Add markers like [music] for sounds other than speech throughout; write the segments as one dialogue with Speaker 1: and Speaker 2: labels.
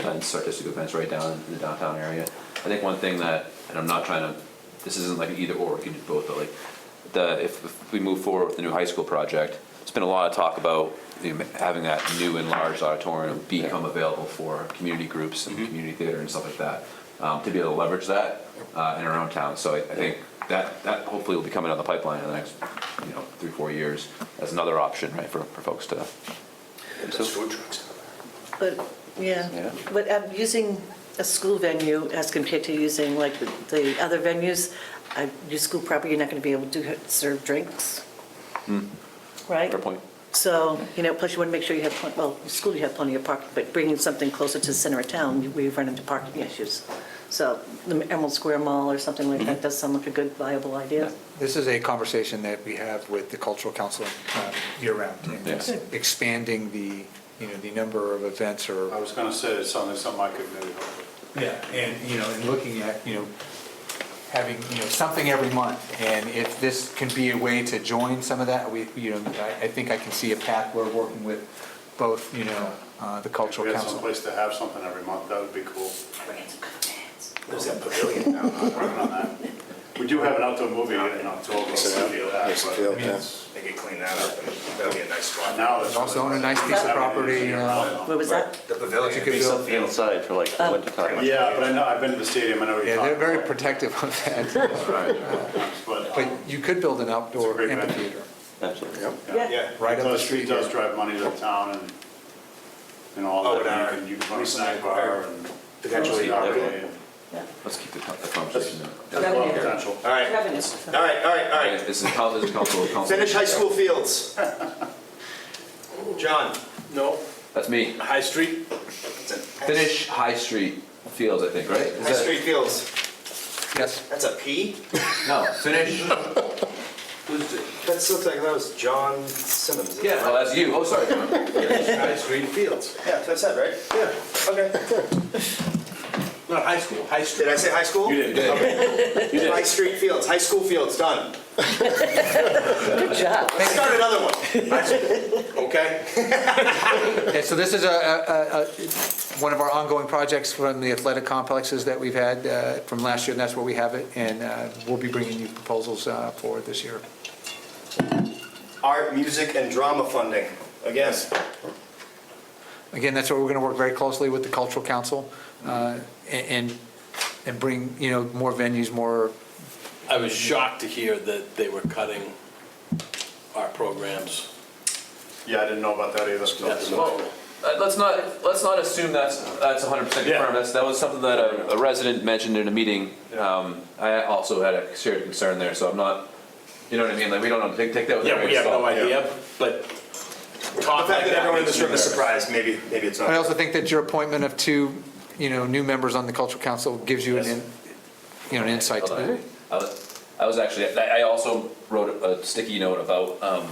Speaker 1: events, artistic events right down in the downtown area. I think one thing that, and I'm not trying to, this isn't like an either or, we can do both, but like, the, if if we move forward with the new high school project, it's been a lot of talk about you know, having that new enlarged auditorium become available for community groups
Speaker 2: Mm-hmm.
Speaker 1: and community theater and stuff like that, um, to be able to leverage that uh, in our own town. So I I think that, that hopefully will be coming down the pipeline in the next, you know, three, four years as another option, right, for, for folks to
Speaker 3: There's food trucks down
Speaker 4: But,
Speaker 1: Yeah.
Speaker 4: yeah, but um, using a school venue as compared to using like the- the other venues, uh, your school property, you're not going to be able to do- serve drinks, right?
Speaker 1: Hmm. Fair point.
Speaker 4: So, you know, plus you want to make sure you have, plen- well, with school you have plenty of parking, but bringing something closer to the center of town, we run into parking issues. So the Emerald Square Mall or something like
Speaker 1: Mm-hmm.
Speaker 4: that does sound like a good viable idea.
Speaker 5: This is a conversation that we have with the Cultural Council um, year-round. and
Speaker 1: Yeah.
Speaker 5: it's Expanding the, you know, the number of events
Speaker 3: there. I
Speaker 5: or,
Speaker 3: was gonna say, it's something, something I could maybe help with.
Speaker 5: yeah, and, you know, and looking at, you know, having, you know, something every month. And if this can be a way to join some of that, we, you know, I, I think I can see a path where working with both, you know, uh, the
Speaker 3: If we
Speaker 5: Cultural
Speaker 3: had
Speaker 5: Council.
Speaker 3: someplace to have something every month, that would be cool.
Speaker 6: There's that pavilion now.
Speaker 3: I'm working on that. We do have an outdoor movie in October, so I feel that, but
Speaker 6: Field, yeah.
Speaker 7: They could clean that up, and that'd be a nice spot.
Speaker 3: now it's.
Speaker 5: It's also on a nice piece of property, uh,
Speaker 4: Where was that?
Speaker 7: The pavilion
Speaker 5: It's a
Speaker 7: would
Speaker 5: good
Speaker 7: be
Speaker 5: build.
Speaker 7: something else.
Speaker 2: inside for like
Speaker 4: Oh.
Speaker 2: winter time.
Speaker 3: Yeah, but I know, I've been to the stadium, I know what you're
Speaker 5: Yeah,
Speaker 3: talking
Speaker 5: they're
Speaker 3: about.
Speaker 5: very protective of that.
Speaker 3: But,
Speaker 5: But
Speaker 3: um,
Speaker 5: you could build an outdoor
Speaker 3: great venue.
Speaker 5: amphitheater.
Speaker 2: Absolutely.
Speaker 6: Yep.
Speaker 3: yeah.
Speaker 5: Right up the
Speaker 3: Because
Speaker 5: street
Speaker 3: It does
Speaker 5: here.
Speaker 3: drive money to the town and, and all
Speaker 7: Oh,
Speaker 3: that,
Speaker 7: and
Speaker 3: you can, you can
Speaker 7: our
Speaker 3: run a snack
Speaker 7: recent-
Speaker 3: bar and.
Speaker 7: Potentially,
Speaker 3: Yeah,
Speaker 2: yeah.
Speaker 4: Yeah.
Speaker 1: Let's keep the the conversation there.
Speaker 3: That's a lot of
Speaker 4: Revenue.
Speaker 3: potential.
Speaker 7: All right, all
Speaker 4: Revenue.
Speaker 7: right, all right, all right.
Speaker 1: This is council, this is council. council-
Speaker 7: Finish high school [laughs] fields. John? No.
Speaker 1: That's me.
Speaker 7: High Street?
Speaker 1: Finish High Street Fields, I think, right? Is
Speaker 7: High
Speaker 1: that-
Speaker 7: Street Fields,
Speaker 5: Yes?
Speaker 7: that's a P?
Speaker 1: No, finish,
Speaker 7: That looks like that was John Simmons. isn't
Speaker 1: yeah,
Speaker 7: it?
Speaker 1: oh, that's you, oh, sorry.
Speaker 7: High Street Fields. Yeah, that's it, right? Yeah. [laughs] Okay.
Speaker 3: Not high school, high school.
Speaker 7: Did I say high school?
Speaker 3: You
Speaker 7: [laughs]
Speaker 3: did.
Speaker 7: High Street Fields, high school fields, done.
Speaker 4: Good job.
Speaker 7: Let's start another one. Okay?
Speaker 5: Yeah, so this is a, a- a- one of our ongoing projects from the athletic complexes that we've had uh, from last year, and that's where we have it, and uh, we'll be bringing you proposals uh, for this year.
Speaker 7: Art, music, and drama funding, again.
Speaker 5: Again, that's where we're going to work very closely with the cultural council uh, and, and bring, you know, more venues, more,
Speaker 8: I was shocked to hear that they were cutting our programs.
Speaker 3: Yeah, I didn't know about that either.
Speaker 8: That's
Speaker 1: Well, uh, let's not, let's not assume that's, that's hundred percent
Speaker 3: Yeah.
Speaker 1: confirmed, that's, that was something that a, a resident mentioned in a meeting. Um, I also had a shared concern there, so I'm not, you know what I mean, like, we don't know, take, take that with a
Speaker 8: Yeah,
Speaker 1: grain
Speaker 8: we
Speaker 1: of
Speaker 8: have no
Speaker 1: salt.
Speaker 8: idea, but
Speaker 7: The
Speaker 8: talk like
Speaker 7: fact that everyone in this room is
Speaker 8: surprised.
Speaker 7: surprised, maybe, maybe it's
Speaker 5: I
Speaker 7: not.
Speaker 5: also think that your appointment of two, you know, new members on the cultural council gives you an, in- you know, an insight to
Speaker 1: Although
Speaker 5: that.
Speaker 1: I I was, I was actually, I I also wrote a sticky note about um,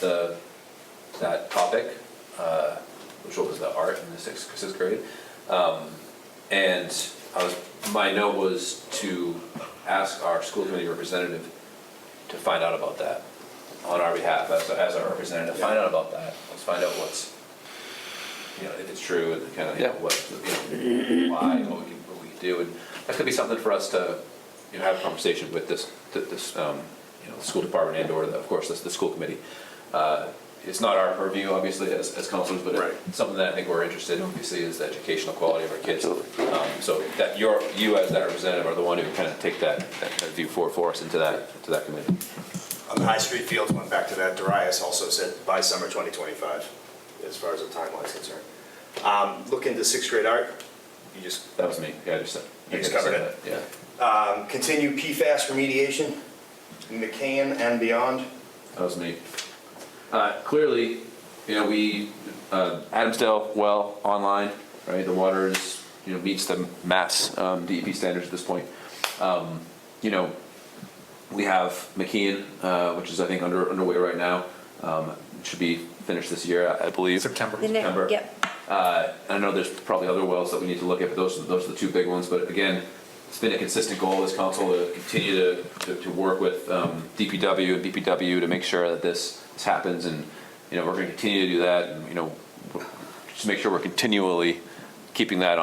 Speaker 1: the, that topic, uh, which was the art in the sixth, sixth grade. Um, And I was, my note was to ask our school committee representative to find out about that on our behalf, as, as our representative, find out about that. Let's find out what's, you know, if it's true and kind of, you know, what, you know, why, and what we, what we do. And that could be something for us to, you know, have a conversation with this, th- this, um, you know, the school department and or, the- of course, the, the school committee. Uh, It's not our purview, obviously, as, as counselors, but it's something that I think we're interested in, obviously, is the educational quality of our kids.
Speaker 2: Absolutely.
Speaker 1: Um, So that you're, you as that representative are the one who kind of take that, that that view forward for us into that, to that committee.
Speaker 7: On the Um, High Street Fields, went back to that, Darius also said by summer 2025, as far as the timeline's concerned. Um, Look into sixth grade art, you just
Speaker 1: That was me, yeah, I just said.
Speaker 7: You just covered it.
Speaker 1: Yeah.
Speaker 7: um, continue PFAS remediation, McCann and beyond.
Speaker 1: That was me. Uh, Clearly, you know, we, uh, Adamsdale well online, right? The water is, you know, meets the mass um, DEP standards at this point. Um, You know, we have McKeon, uh, which is, I think, under underway right now. Um, it Should be finished this year, I I believe.
Speaker 5: September.
Speaker 9: The next-
Speaker 1: September.
Speaker 9: Yep.
Speaker 1: Uh, I know there's probably other wells that we need to look at, but those, are- those are the two big ones. But again, it's been a consistent goal of this council to continue to, to, to work with um, DPW and BPW to make sure that this, this happens. And, you know, we're going to continue to do that and, you know, w- just make sure we're continually keeping that on